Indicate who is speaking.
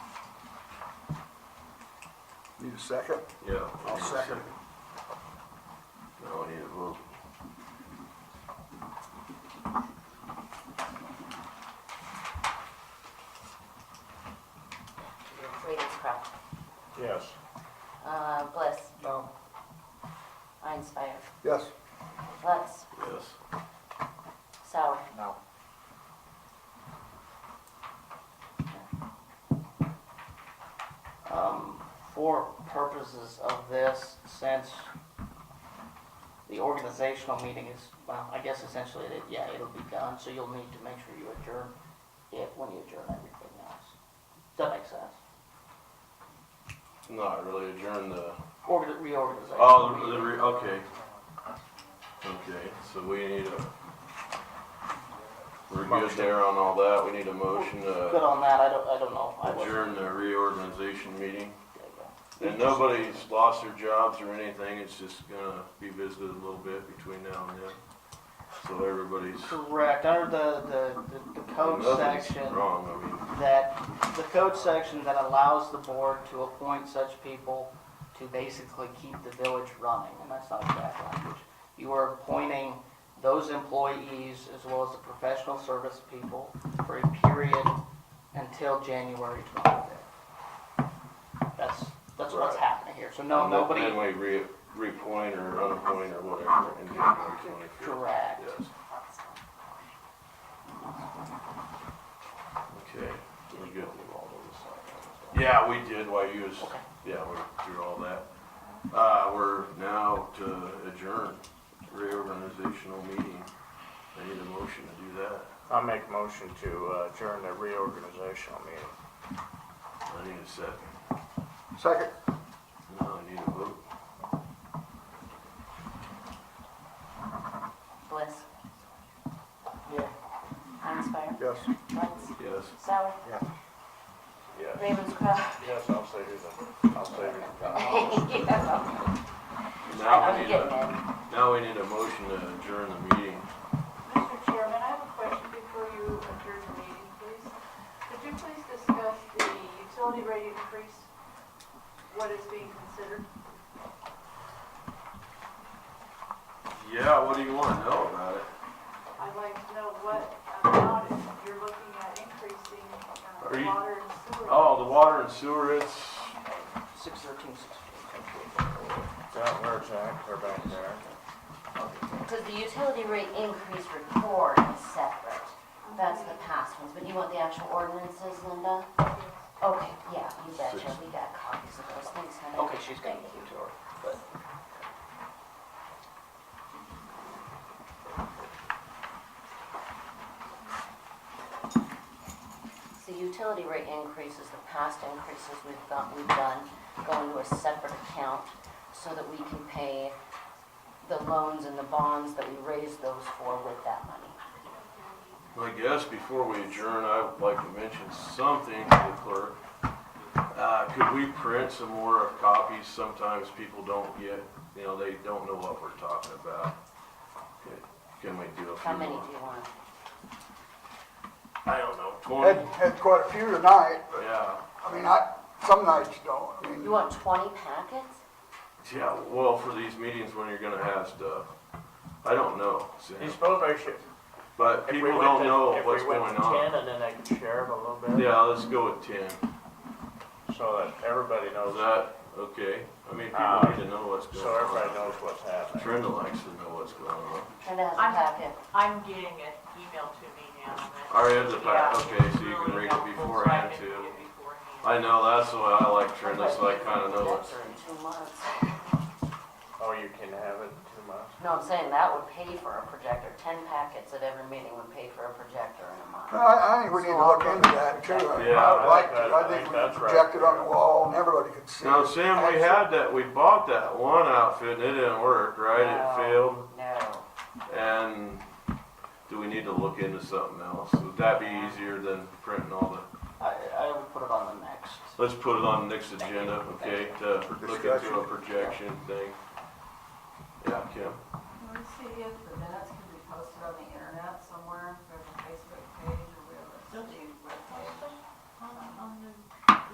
Speaker 1: Need a second?
Speaker 2: Yeah.
Speaker 1: I'll second.
Speaker 2: No, I need a vote.
Speaker 3: Ravenscroft.
Speaker 4: Yes.
Speaker 3: Uh, Bliss.
Speaker 1: No.
Speaker 3: Einspire.
Speaker 1: Yes.
Speaker 3: Lutz.
Speaker 2: Yes.
Speaker 3: Sauer.
Speaker 4: No.
Speaker 5: Um, for purposes of this, since the organizational meeting is, well, I guess essentially, it, yeah, it'll be done, so you'll need to make sure you adjourn it when you adjourn everything else. Does that make sense?
Speaker 2: Not really adjourn the.
Speaker 5: Or the reorganization.
Speaker 2: Oh, the,
Speaker 5: meeting.
Speaker 2: the re, okay. Okay, so we need a. We're good there on all that. We need a motion
Speaker 5: Good
Speaker 2: to
Speaker 5: on that, I don't, I don't know. I wasn't-
Speaker 2: uh, adjourn the reorganization meeting.
Speaker 5: There you go.
Speaker 2: And nobody's lost their jobs or anything. It's just gonna be visited a little bit between now and then. So everybody's.
Speaker 5: Correct, under the, the, the- the code
Speaker 2: nothing's
Speaker 5: section.
Speaker 2: Wrong, I mean.
Speaker 5: that the code section that allows the board to appoint such people to basically keep the village running, and that's not exact language. You are appointing those employees as well as the professional service people for a period until January twenty-fifth. That's, that's what's
Speaker 2: Right.
Speaker 5: happening here, so no, nobody,
Speaker 2: Then we re, repoint or unappoint or whatever in January twenty-fifth.
Speaker 5: correct.
Speaker 2: Yes. Okay, we good. Yeah, we did while you was, yeah, we're through all that. Uh, we're now to adjourn reorganizational meeting. I need a motion to do that.
Speaker 4: I make motion to uh, adjourn the reorganizational meeting.
Speaker 2: I need a second.
Speaker 1: Second?
Speaker 2: No, I need a vote.
Speaker 3: Bliss.
Speaker 5: Yeah.
Speaker 3: Einspire.
Speaker 1: Yes.
Speaker 3: Lutz.
Speaker 2: Yes.
Speaker 3: Sauer.
Speaker 4: Yes.
Speaker 3: Ravenscroft.
Speaker 4: Yes, I'll say who the, I'll say who
Speaker 3: Yeah.
Speaker 2: Now we
Speaker 3: I'm
Speaker 2: need
Speaker 3: getting
Speaker 2: a,
Speaker 3: it.
Speaker 2: now we need a motion to adjourn the meeting.
Speaker 6: Mr. Chairman, I have a question before you adjourn the meeting, please. Could you please discuss the utility rate increase, what is being considered?
Speaker 2: Yeah, what do you wanna know about it?
Speaker 6: I'd like to know what amount you're looking at increasing uh,
Speaker 2: Are you-
Speaker 6: water and sewer.
Speaker 2: Oh, the water and sewer, it's,
Speaker 5: Six thirteen, six fifteen.
Speaker 4: the. Down where it's at, they're back there.
Speaker 3: Because the utility rate increase report is separate. That's the past ones, but you want the actual ordinances, Linda? Okay, yeah, you betcha, we got copies of those, thanks, honey.
Speaker 5: Okay, she's gonna
Speaker 3: Thank you.
Speaker 5: give it to her, but.
Speaker 3: So utility rate increases, the past increases we've done, we've done, go into a separate account so that we can pay the loans and the bonds that we raised those for with that money.
Speaker 2: I guess before we adjourn, I would like to mention something to the clerk. Uh, could we print some more copies? Sometimes people don't get, you know, they don't know what we're talking about. Can we do a few more?
Speaker 3: How many do you want?
Speaker 2: I don't know,
Speaker 1: Had,
Speaker 2: twenty,
Speaker 1: had quite a few tonight.
Speaker 2: yeah.
Speaker 1: I mean, I, some nights you don't. I mean,
Speaker 3: You want twenty packets?
Speaker 2: Yeah, well, for these meetings when you're gonna have stuff, I don't know, Sam.
Speaker 4: He's probation.
Speaker 2: but
Speaker 4: If we
Speaker 2: people
Speaker 4: went
Speaker 2: don't
Speaker 4: to-
Speaker 2: know what's going
Speaker 4: If we went to
Speaker 2: on.
Speaker 4: ten and then they can share it a little bit.
Speaker 2: Yeah, let's go with ten.
Speaker 4: So that everybody
Speaker 2: Is
Speaker 4: knows,
Speaker 2: that, okay? I mean,
Speaker 4: Uh,
Speaker 2: people need to know what's going
Speaker 4: so
Speaker 2: on.
Speaker 4: everybody knows what's happening.
Speaker 2: Brenda likes to know what's going on.
Speaker 3: Brenda has a
Speaker 6: I'm-
Speaker 3: packet.
Speaker 6: I'm getting an email to me now. and that's-
Speaker 2: All right, it's a pack.
Speaker 6: Yeah,
Speaker 2: Okay, so you can
Speaker 6: really
Speaker 2: read it
Speaker 6: helpful, so I
Speaker 2: beforehand,
Speaker 6: can
Speaker 2: too.
Speaker 6: read it beforehand.
Speaker 2: I know, that's why I like Trenda, so I kinda know what's.
Speaker 3: That's in two months.
Speaker 4: Oh, you can have it in two months?
Speaker 3: No, I'm saying that would pay for a projector. Ten packets at every meeting would pay for a projector in a month.
Speaker 1: I, I think we need to look into that too.
Speaker 2: Yeah,
Speaker 1: I'd
Speaker 2: I
Speaker 1: like
Speaker 4: think
Speaker 1: to,
Speaker 4: that-
Speaker 1: I
Speaker 4: I
Speaker 1: think
Speaker 4: think
Speaker 1: we
Speaker 4: that's right.
Speaker 1: project it on the wall and everybody could see
Speaker 2: Now,
Speaker 1: it.
Speaker 2: Sam, we had that, we bought that one outfit and it didn't work, right? It failed.
Speaker 3: No, No.
Speaker 2: And do we need to look into something else? Would that be easier than printing all the,
Speaker 5: I, I would put it on the next.
Speaker 2: let's put it on the next agenda, okay? To look into a
Speaker 1: Discussion.
Speaker 2: projection thing. Yeah, Kim?
Speaker 7: Can we see if the minutes can be posted on the internet somewhere, if there's a Facebook page or we have a webpage?
Speaker 6: On, on the